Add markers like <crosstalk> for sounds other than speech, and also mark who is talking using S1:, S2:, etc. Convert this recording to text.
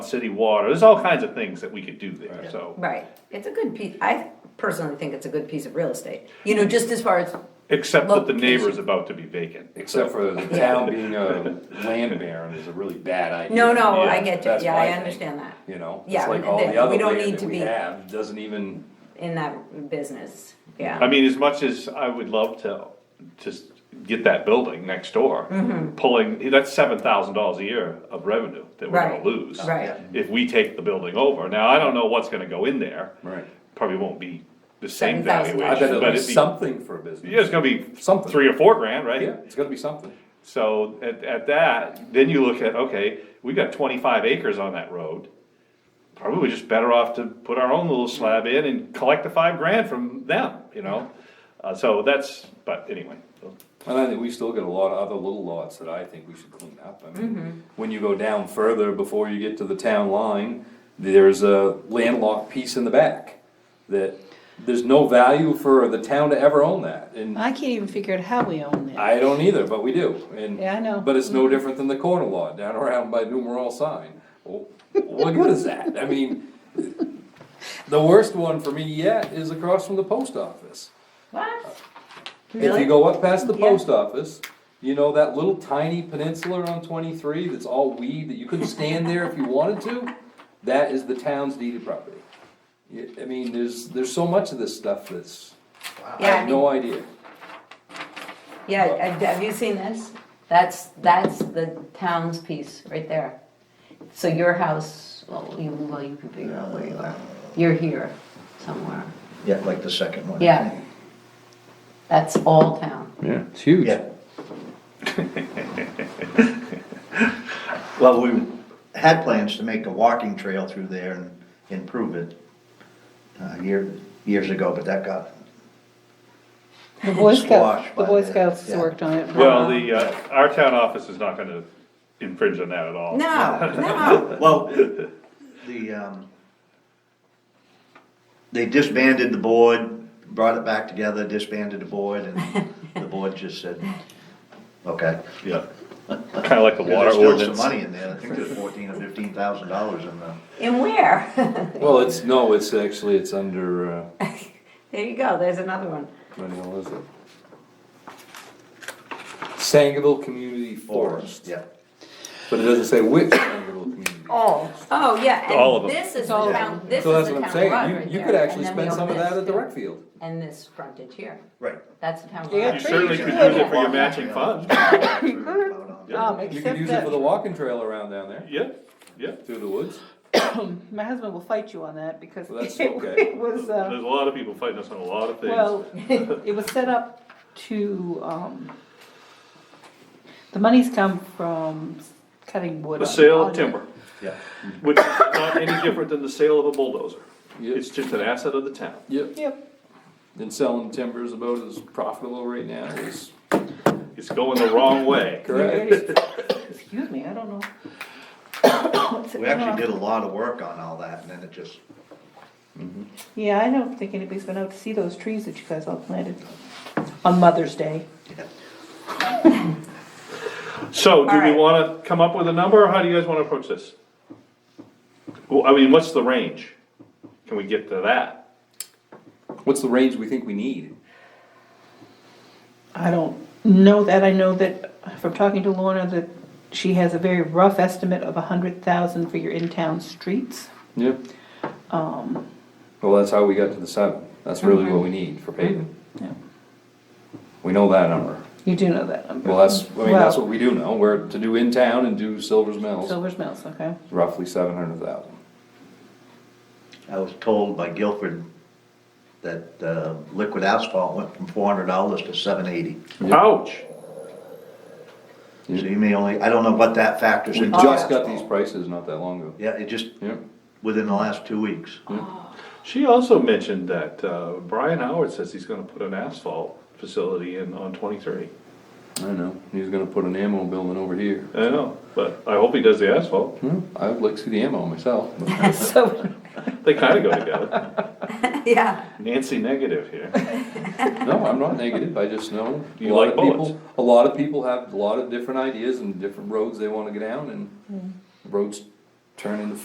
S1: city water, there's all kinds of things that we could do there, so.
S2: Right, it's a good piece, I personally think it's a good piece of real estate, you know, just as far as,
S1: Except that the
S2: Location.
S1: neighbor's about to be vacant.
S3: Except
S1: <laughs>
S3: for the town being a land baron is a really bad idea.
S2: no, no,
S1: Yeah,
S2: I get you,
S3: That's
S2: yeah,
S3: my
S2: I
S3: thing,
S2: understand that,
S3: You know, it's
S2: Yeah,
S3: like all
S2: that-
S3: the
S2: we
S3: other
S2: don't
S3: land
S2: need
S3: that
S2: to
S3: we
S2: be-
S3: have, doesn't even,
S2: in that business,
S1: I
S2: yeah.
S1: mean, as much as I would love to just get that building next door,
S2: Mm-hmm.
S1: pulling, that's seven thousand dollars a year of revenue that we're gonna
S2: Right,
S1: lose.
S2: right.
S1: If we take the building over, now I don't know what's gonna go in there,
S3: right.
S1: probably won't be the same
S3: I
S2: $7,000.
S3: bet
S1: valuation, but
S3: it'll be
S1: it'd be,
S3: something for a business.
S1: yeah, it's gonna be
S3: Something.
S1: three or four grand,
S3: Yeah,
S1: right?
S3: it's gonna be something.
S1: So at, at that, then you look at, okay, we got twenty-five acres on that road. Probably just better off to put our own little slab in and collect the five grand from them, you know? Uh, so that's, but anyway, so-
S3: And I think we still got a lot of other little lots that I think we should clean up. I
S2: Mm-hmm.
S3: mean, when you go down further, before you get to the town line, there's a landlocked piece in the back. That, there's no value for the town to ever own that, and
S4: I can't even figure out how we own that.
S3: I don't either, but we do, and.
S4: Yeah, I know.
S3: But it's no different than the corner lot down around by numeral sign. Well, What good is that? I mean, the worst one for me yet is across from the post office.
S2: What?
S3: If
S2: Really?
S3: you go up past the
S2: Yeah.
S3: post office, you know that little tiny peninsula on twenty-three that's all weed that you couldn't stand there if you wanted to? That is the town's deeded property. Y- I mean, there's, there's so much of this stuff that's, I
S2: Yeah, I
S3: have
S2: mean,
S3: no idea.
S2: yeah, I- have you seen this? That's, that's the town's piece, right there. So your house, well, you, well, you can figure out where you are, you're here somewhere,
S5: Yeah, like the second one. I
S2: Yeah.
S5: think.
S2: that's all town.
S3: Yeah, it's huge.
S5: Yeah. <laughs> Well, we had plans to make a walking trail through there and improve it, uh, year, years ago, but that got,
S4: The Boy Scouts,
S5: Squash
S4: the
S5: by
S4: Boy
S5: the-
S4: Scouts
S5: yeah.
S4: worked on it.
S1: well, the, uh, our town office is not gonna infringe on that at all.
S5: <laughs>
S2: No, no,
S5: well, the, um, they disbanded the board, brought it back together, disbanded the board, and the board just said, okay.
S1: Yeah, kinda like the water
S5: There's still some
S1: ordinance.
S5: money in there, I think there's fourteen or fifteen thousand dollars in the,
S2: and where? <laughs>
S3: Well, it's, no, it's actually, it's under, uh,
S2: There you go, there's another one.
S3: what the hell is it? Sangerville Community Forest,
S5: yeah.
S3: but it doesn't say which Sangerville Community.
S2: Oh. Oh, yeah,
S1: All of
S2: and
S1: them.
S2: this is the
S4: All of
S2: town, this is
S3: So
S2: the
S3: that's what
S2: town
S3: I'm
S2: garage
S3: saying,
S2: right
S3: you, you
S2: there,
S3: could actually
S2: and then we
S3: spend some of
S2: own
S3: that
S2: this
S3: at the
S2: too.
S3: rec field.
S2: And this frontage here,
S5: Right.
S2: that's the town
S4: Yeah,
S1: You
S2: garage. <laughs>
S1: certainly could use it for your matching
S5: <laughs>
S1: funds.
S4: Um,
S3: You could
S4: except
S3: use it for the
S4: that,
S3: walking trail around down there,
S1: Yeah, yeah,
S3: through the woods.
S4: my husband will fight you on that because
S3: Well, that's okay.
S4: <laughs> it was, uh,
S1: there's a lot of people fighting us on a lot of things.
S4: well,
S3: <laughs>
S4: it was set up to, um, the money's come from cutting wood.
S1: The
S4: on-
S1: sale
S4: on
S1: of
S4: it.
S1: timber,
S5: Yeah.
S1: which is not any different than the sale of a bulldozer.
S3: Yep.
S1: It's just an asset of the town.
S3: Yep,
S4: Yep,
S3: and selling timber is about as profitable right now as,
S1: It's going the wrong way.
S3: correct?
S4: excuse me, I don't know. What's it
S5: We
S4: called?
S5: actually did a lot of work on all that, and then it just,
S4: Yeah, I don't think anybody's been out to see those trees that you guys all planted on Mother's Day.
S5: yeah.
S1: So do we
S2: Alright.
S1: wanna come up with a number, or how do you guys wanna approach this? Well, I mean, what's the range? Can we get to that?
S3: What's the range we think we need?
S4: I don't know that, I know that from talking to Lorna that she has a very rough estimate of a hundred thousand for your in-town streets.
S3: Yep. Um.
S2: Um.
S3: Well, that's how we got to the seven, that's really
S2: Mm-hmm.
S3: what we need for paving,
S4: Yeah,
S3: we know that number.
S4: You do know that number.
S3: Well, that's, I mean, that's
S4: Well,
S3: what we do know, we're to do in town and do Silver's Mills,
S4: Silver's Mills, okay.
S3: roughly seven hundred thousand.
S5: I was told by Guilford that uh, liquid asphalt went from four hundred dollars to seven eighty.
S3: Yep.
S1: Ouch,
S5: So you may only, I don't know what that factors
S3: We
S5: into.
S3: just got
S5: asphalt.
S3: these prices not that long ago.
S5: Yeah, it just,
S3: Yep,
S5: within the last two weeks.
S1: she also mentioned that, uh, Brian Howard says he's gonna put an asphalt facility in on twenty-three.
S3: I know, he's gonna put an ammo building over here.
S1: I know, but I hope he does the asphalt,
S3: Hmm, I would like to see the ammo myself, but-
S4: So,
S1: they kinda go together,
S2: Yeah,
S1: Nancy negative here,
S3: No, I'm not negative, I just know. a
S1: You
S3: lot
S1: like
S3: of people-
S1: bullets.
S3: A lot of people have a lot of different ideas and different roads they wanna go down and roads turn into